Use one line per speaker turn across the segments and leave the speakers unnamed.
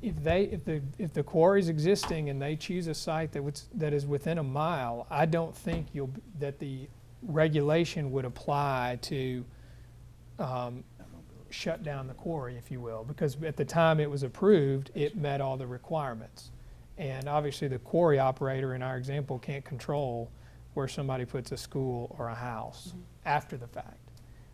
if they, if the, if the quarry's existing and they choose a site that was, that is within a mile, I don't think you'll, that the regulation would apply to um, shut down the quarry, if you will, because at the time it was approved, it met all the requirements. And obviously, the quarry operator in our example can't control where somebody puts a school or a house after the fact.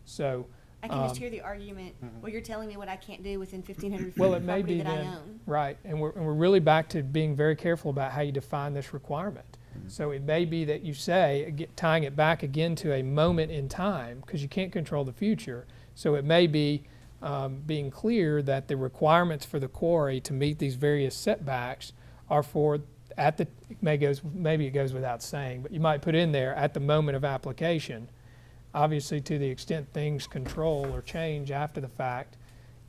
So,
I can
Um, mm-hmm.
just hear the argument, well, you're telling me what I can't do within fifteen hundred feet
Well,
of
it may
property
be
that I
then-
own.
Right, and we're, and we're really back to being very careful about how you define this requirement. So it may be that you say, ag- tying it back again to a moment in time, because you can't control the future. So it may be um, being clear that the requirements for the quarry to meet these various setbacks are for, at the, it may goes, maybe it goes without saying, but you might put in there, at the moment of application. Obviously, to the extent things control or change after the fact,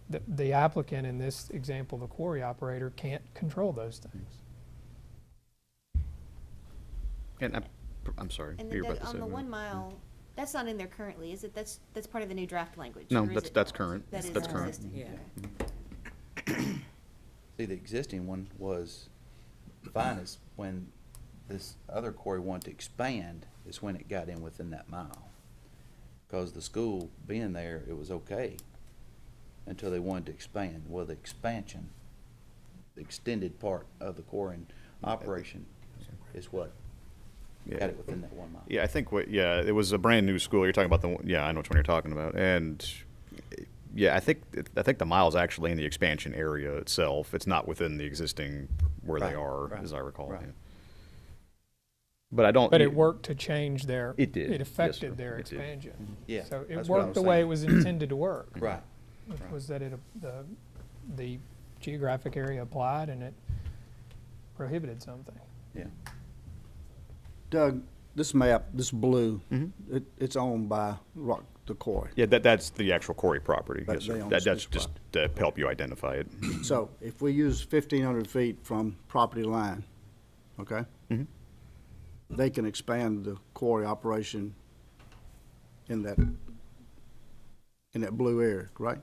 the- the applicant, in this example, the quarry operator, can't control those things.
And I, I'm sorry.
And then
you were about
Doug,
to
on
say
the
that.
one mile, that's not in there currently, is it? That's, that's part of the new draft language?
No,
or is
that's-
it
that's
not?
current.
That is
That's current.
existing,
Yeah.
okay.
See, the existing one was fine, it's when this other quarry wanted to expand, is when it got in within that mile. Cause the school being there, it was okay, until they wanted to expand, well, the expansion, the extended part of the quarry and operation is what
Yeah.
got it within that one mile.
Yeah, I think what. Yeah, it was a brand new school. You're talking about the. one- Yeah, I know which one you're talking about. And yeah, I think I think the mile's actually in the expansion area itself. It's not within the existing where
Right,
they are,
right,
as I recall.
right.
yeah. But I don't.
But it worked to change their.
It did.
It
Yes, sir.
affected their
It did.
expansion.
Yeah,
So it
that's what I
worked the
was
way it
saying.
was intended to work.
Right,
which
right.
Was that it, the, the geographic area applied and it prohibited something.
yeah.
Doug, this map, this blue,
Mm-hmm.
it, it's owned by Rock the Quarry.
Yeah, that that's the actual quarry property.
But
yes, sir.
they own
That, that's
this
just to help you identify it.
So if we use fifteen hundred feet from property line, okay?
Mm-hmm.
They can expand the quarry operation in that, in that blue area, right?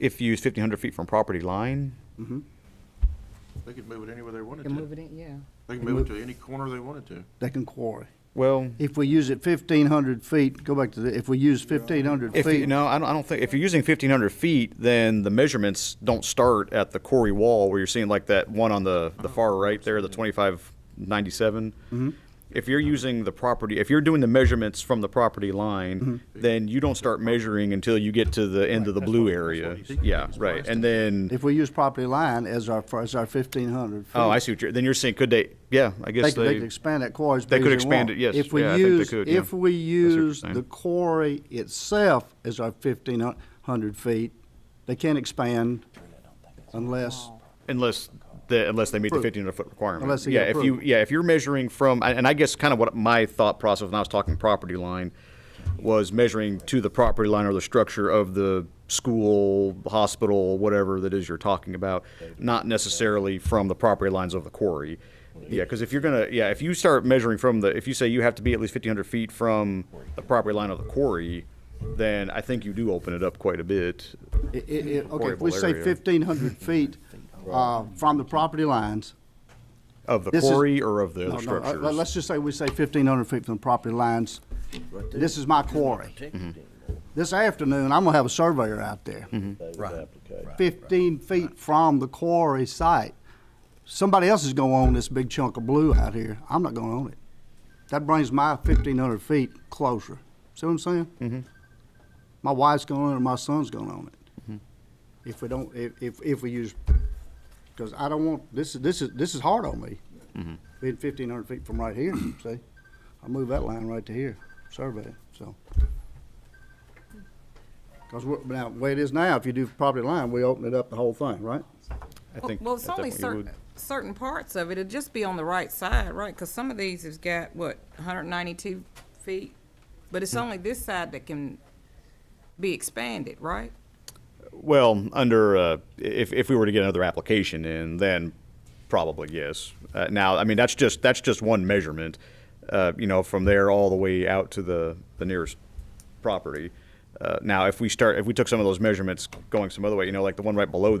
If you use 1,500 feet from property line,
They could move it anywhere they wanted
Can move
to.
it in, yeah.
They could move it to any corner they wanted to.
They can quarry.
well,
If we use it fifteen hundred feet, go back to the, if we use fifteen hundred
If you,
feet,
no, I don't, I don't think if you're using 1,500 feet, then the measurements don't start at the quarry wall where you're seeing like that one on the, the
Oh,
far right there, the 2597.
Mm-hmm.
If you're using the property, if you're doing the measurements from the property line,
Mm-hmm.
then you don't start measuring until you get to the end of the blue area.
he's-
Yeah,
he's
right.
priced
And then,
if we use property line as our, as our fifteen hundred feet.
oh, I see what you're, then you're saying, could they, yeah, I
They
guess
could, they could
they,
expand that quarry as
They
big
could
as they
expand
want.
it, yes.
If we
Yeah, I think they
use-
could, yeah.
If we
what you're
use the
saying.
quarry itself as our fifteen hundred feet, they can't expand unless,
unless, the, unless they meet the
Approved.
1,500 foot requirement.
Unless they
Yeah,
get
if you,
approved.
yeah, if you're measuring from, and and I guess kind of what my thought process when I was talking property line was measuring to the property line or the structure of the school, hospital, whatever that is you're talking about, not necessarily from the property lines of the quarry. Yeah, because if you're gonna, yeah, if you start measuring from the, if you say you have to be at least fifteen hundred feet from the property line of the quarry, then I think you do open it up quite a bit.
i- i- i- okay, if we
Quarryable
say
area.
fifteen hundred feet, uh, from the property lines.
Of the
This is-
quarry or of the other
no, no, uh,
structures?
let- Let's just say we say fifteen hundred feet from the property lines. This is my quarry.
Mm-hmm.
This afternoon, I'm gonna have a surveyor out there.
Right.
15 feet from the quarry site. Somebody else is going to own this big chunk of blue out here. I'm not going to own it. That brings my 1,500 feet closer. See what I'm saying? Mm-hmm. My wife's going to own it, my son's going to own it. If we don't, if, if, if we use, because I don't want, this is, this is, this is hard on me. Being 1,500 feet from right here, see? I move that line right to here, survey, so. Because now, the way it is now, if you do property line, we open it up the whole thing, right?
I
Well-
think
Well, it's
at that
only
point you
certain,
would.
certain parts of it, it'd just be on the right side, right? Because some of these has got, what, 192 feet? But
Hmm.
it's only this side that can be expanded, right?
Well, under, uh, if, if we were to get another application in, then probably yes. Uh, Now, I mean, that's just, that's just one measurement, uh, you know, from there all the way out to the, the nearest property. Uh, Now, if we start, if we took some of those measurements going some other way, you know, like the one right below